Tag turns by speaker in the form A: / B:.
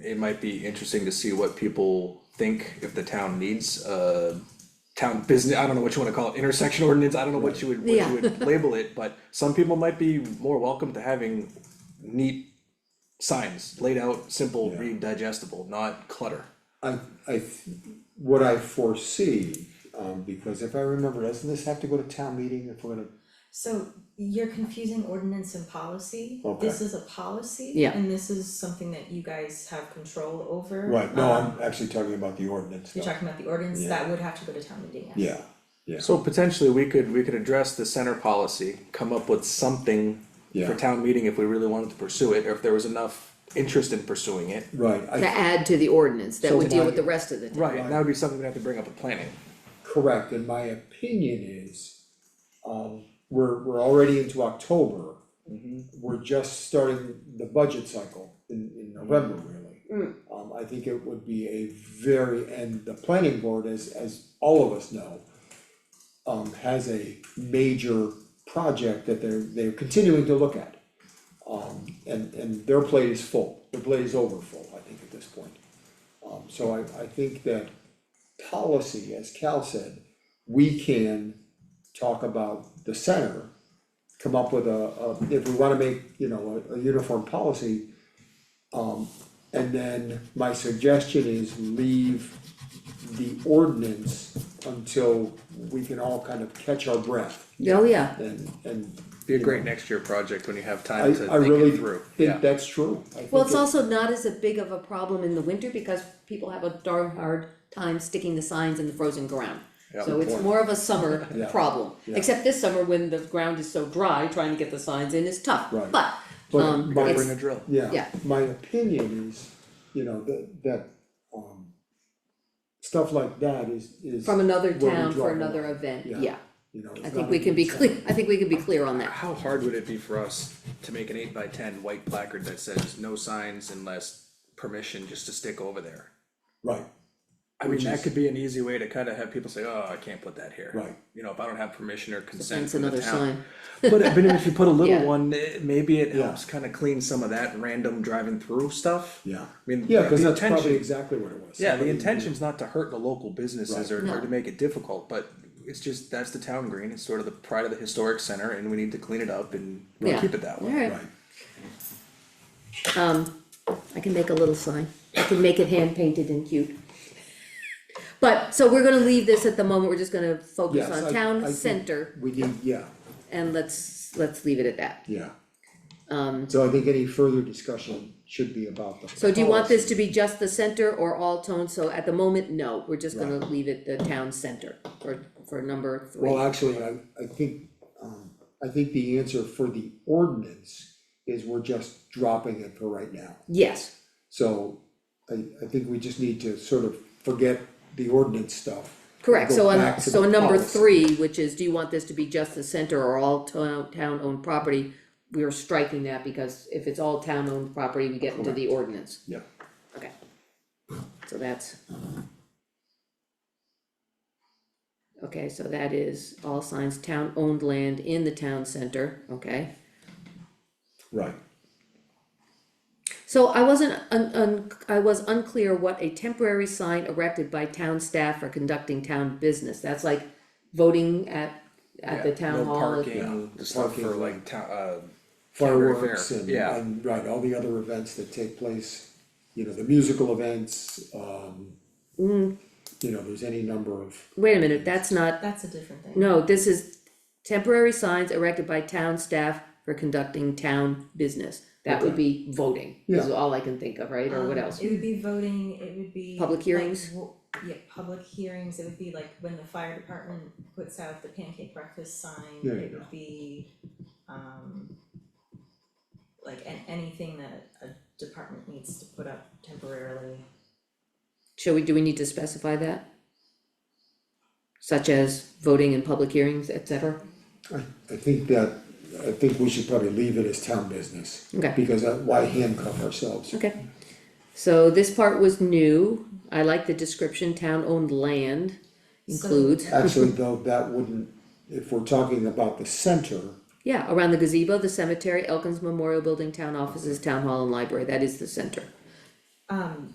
A: It might be interesting to see what people think if the town needs a town business, I don't know what you wanna call it, intersection ordinance, I don't know what you would, what
B: Yeah.
A: you would label it, but some people might be more welcome to having neat signs, laid out, simple, read digestible, not clutter.
C: I, I, th- what I foresee, um, because if I remember, doesn't this have to go to town meeting if we're gonna,
D: So you're confusing ordinance and policy.
C: Okay.
D: This is a policy.
B: Yeah.
D: And this is something that you guys have control over.
C: right, no,
D: Um,
C: I'm actually talking about the ordinance
D: You're
C: though.
D: talking about the ordinance,
C: Yeah.
D: that would have to go to town meeting.
C: Yeah, yeah,
A: So potentially, we could, we could address the center policy, come up with something
C: Yeah.
A: for town meeting if we really wanted to pursue it, or if there was enough interest in pursuing it.
C: right,
B: to
C: I,
B: add to the ordinance that
C: So
B: would deal
C: why-
B: with the rest of the town.
A: Right, and that would be something we'd have to bring up at planning.
C: correct, and my opinion is, um, we're, we're already into October. We're just starting the budget cycle in, in November really. Um, I think it would be a very, and the planning board, as, as all of us know, um, has a major project that they're, they're continuing to look at. Um, and, and their plate is full, their plate is over full, I think, at this point. Um, so I, I think that policy, as Cal said, we can talk about the center, come up with a, a, if we wanna make, you know, a, a uniform policy. Um, and then my suggestion is leave the ordinance until we can all kind of catch our breath
B: Oh, yeah,
C: and, and.
A: Be a
C: you
A: great
C: know,
A: next year project when you have
C: I,
A: time to
C: I
A: think it
C: really
A: through, yeah.
C: think that's true. I
B: well,
C: think
B: it's
C: it-
B: also not as a big of a problem in the winter because people have a darn hard time sticking the signs in the frozen ground.
A: Yeah,
B: So
A: good
B: it's
A: point.
B: more of a summer
C: Yeah.
B: problem,
C: Yeah.
B: except this summer when the ground is so dry, trying to get the signs in is tough,
C: Right.
B: but,
C: But-
B: um,
C: but-
A: Gotta
B: it's-
A: bring a drill.
C: Yeah,
B: Yeah.
C: my opinion is, you know, that, that, um, stuff like that is, is.
B: from another
C: where we draw
B: town for
C: the line,
B: another event,
C: Yeah.
B: yeah,
C: You know, it's
B: I
C: not
B: think we
C: a
B: can be
C: concern.
B: clear, I think we can be clear on that.
A: How hard would it be for us to make an eight by ten white placard that says no signs unless permission just to stick over there?
C: Right,
A: I mean,
C: Which
A: that
C: is-
A: could be an easy way to kind of have people say, oh, I can't put that here.
C: Right.
A: You know, if I don't have permission or consent
B: That's
A: from the
B: another sign,
A: town. But but even if you put a little
B: Yeah.
A: one, eh, maybe it
C: Yeah.
A: helps kind of clean some of that random driving through stuff.
C: yeah.
A: I mean,
C: Yeah, cause
A: the
C: that's probably
A: intention-
C: exactly what it was.
A: Yeah, the
C: Somebody-
A: intention's not to hurt the local businesses
C: Right.
A: or or to make it difficult, but it's just, that's the town green, it's sort of the pride of the historic center and we need to clean it up and
B: Yeah.
A: keep it that way.
B: alright,
C: Right,
B: um, I can make a little sign, I can make it hand painted and cute. But, so we're gonna leave this at the moment, we're just gonna focus
C: Yes, I-
B: on
C: I
B: town
C: think-
B: center,
C: we need, yeah,
B: and let's, let's leave it at that.
C: yeah.
B: Um,
C: So I think any further discussion should be about the.
B: so do you want this
C: policy.
B: to be just the center or all tone, so at the moment, no, we're just gonna leave it the town center for, for number
C: Well,
B: three.
C: actually, I, I think, um, I think the answer for the ordinance is we're just dropping it for right now.
B: Yes,
C: So I, I think we just need to sort of forget the ordinance stuff.
B: correct,
C: Go
B: so on,
C: back to
B: so
C: the
B: on number
C: policy.
B: three, which is, do you want this to be just the center or all town, town-owned property? We are striking that because if it's all town-owned property, we get into the ordinance,
C: Yeah,
B: okay. So that's. Okay, so that is all signs town-owned land in the town center, okay?
C: right,
B: So I wasn't un- un- I was unclear what a temporary sign erected by town staff for conducting town business, that's like voting at, at the
A: Yeah,
B: town hall.
A: No
C: Yeah.
A: parking, the stuff
C: Parking,
A: for
C: right.
A: like town, uh, Canterbury
C: fireworks
A: Fair,
C: and,
A: yeah.
C: and, right, all the other events that take place, you know, the musical events, um.
B: Mm.
C: You know, there's any number of,
B: Wait a minute, that's not,
D: That's a different thing.
B: no, this is temporary signs erected by town staff for conducting town business. That would be voting, is
C: Yeah.
B: all I can think of, right, or what
D: Um,
B: else?
D: It would be voting, it would be.
B: Public
D: like
B: hearings?
D: wo- Yeah, public hearings, it would be like when the fire department puts out the pancake breakfast sign,
C: There you
D: it
C: go.
D: would be, um. Like an- anything that a department needs to put up temporarily.
B: Shall we, do we need to specify that? Such as voting in public hearings, et cetera?
C: I, I think that, I think we should probably leave it as town business.
B: Okay.
C: Because uh, why handcuff ourselves?
B: Okay, so this part was new, I like the description, town-owned land includes,
C: Actually, though, that wouldn't, if we're talking about the center,
B: yeah, around the gazebo, the cemetery, Elkins Memorial Building, town offices, town hall and library, that is the center.
D: Um,